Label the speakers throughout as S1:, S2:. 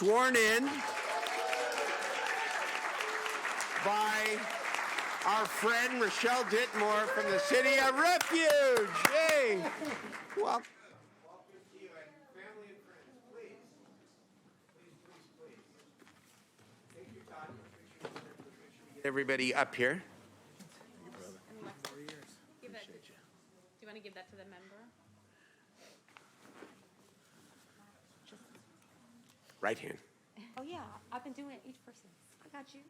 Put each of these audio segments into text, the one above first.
S1: sworn in by our friend Rochelle Ditmore from the City of Refuge. Yay! Well, everybody up here.
S2: Give that, do you want to give that to the member?
S1: Right hand.
S2: Oh, yeah, I've been doing it each person. I got you.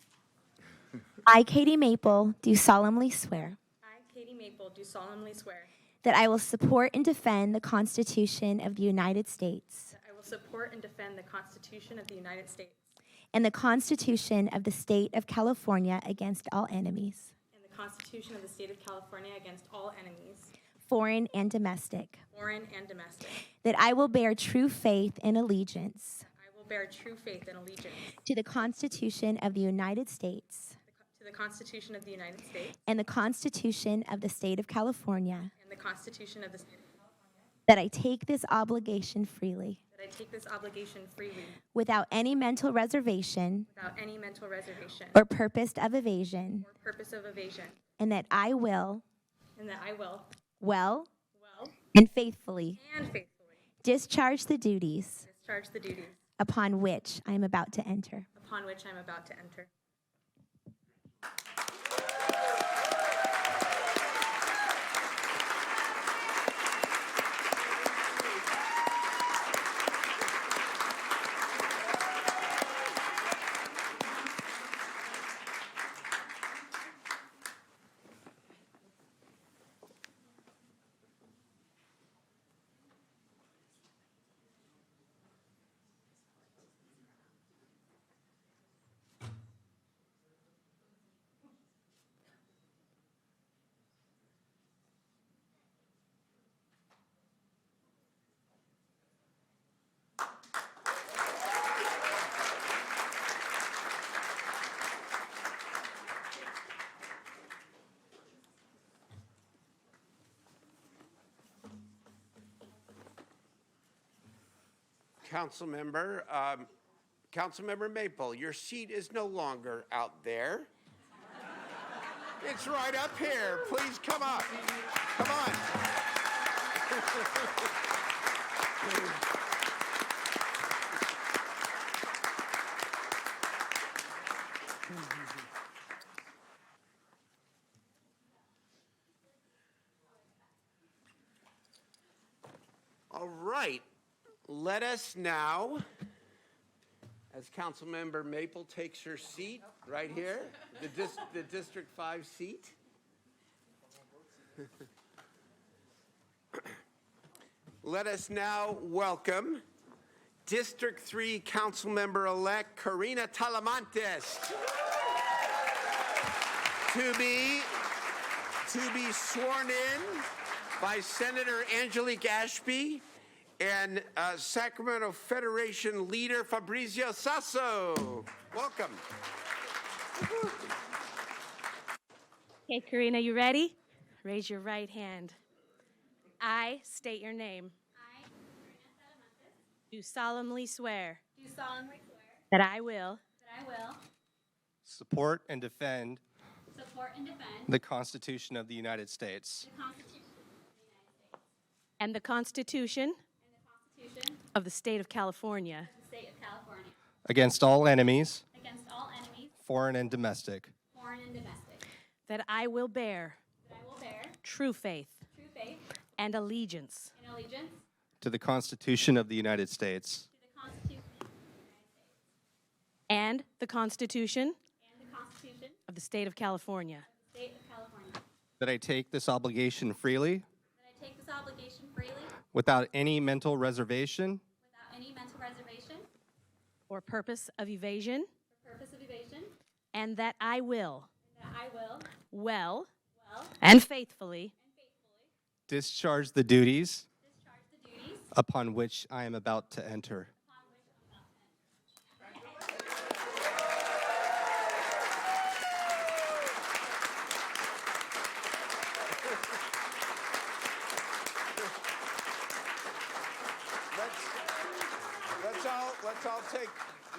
S3: I, Katie Maple, do solemnly swear
S4: I, Katie Maple, do solemnly swear
S3: that I will support and defend the Constitution of the United States
S4: that I will support and defend the Constitution of the United States
S3: and the Constitution of the State of California against all enemies,
S4: and the Constitution of the State of California against all enemies,
S3: foreign and domestic,
S4: foreign and domestic.
S3: that I will bear true faith and allegiance
S4: I will bear true faith and allegiance
S3: to the Constitution of the United States
S4: to the Constitution of the United States
S3: and the Constitution of the State of California,
S4: and the Constitution of the State of California,
S3: that I take this obligation freely
S4: that I take this obligation freely
S3: without any mental reservation
S4: without any mental reservation
S3: or purpose of evasion,
S4: or purpose of evasion,
S3: and that I will.
S4: and that I will,
S3: Well
S4: well
S3: and faithfully
S4: and faithfully,
S3: discharge the duties
S4: discharge the duties
S3: upon which I am about to enter.
S4: upon which I am about to enter.
S1: Councilmember, um, Councilmember Maple, your seat is no longer out there. It's right up here. Please come up. Come on. All right. Let us now, as Councilmember Maple takes her seat right here, the, dis- the District 5 seat. Let us now welcome District 3 Councilmember-elect Karina Talamantes to be, to be sworn in by Senator Angelique Ashby and uh, Sacramento Federation leader Fabrizio Sasso. Welcome.
S5: Okay, Karina, you ready? Raise your right hand. I state your name.
S2: I, Karina Salamantes,
S5: Do solemnly swear
S2: do solemnly swear
S5: that I will
S2: that I will
S6: Support and defend
S2: support and defend
S6: the Constitution of the United States
S2: the Constitution of the United States
S5: and the Constitution
S2: and the Constitution of
S5: of the State of California
S2: the State of California
S6: against all enemies,
S2: against all enemies,
S6: foreign and domestic,
S2: foreign and domestic,
S5: that I will bear
S2: that I will bear
S5: true faith
S2: true faith
S5: and allegiance
S2: and allegiance to
S6: to the Constitution of the United States
S2: the Constitution of the United States
S5: and the Constitution
S2: and the Constitution of
S5: of the State of California
S2: the State of California,
S6: that I take this obligation freely
S2: that I take this obligation freely
S6: without any mental reservation
S2: without any mental reservation
S5: or purpose of evasion,
S2: or purpose of evasion,
S5: and that I will
S2: and that I will
S5: well
S2: well
S5: and faithfully
S2: and faithfully
S6: discharge the duties
S2: discharge the duties
S6: upon which I am about to enter.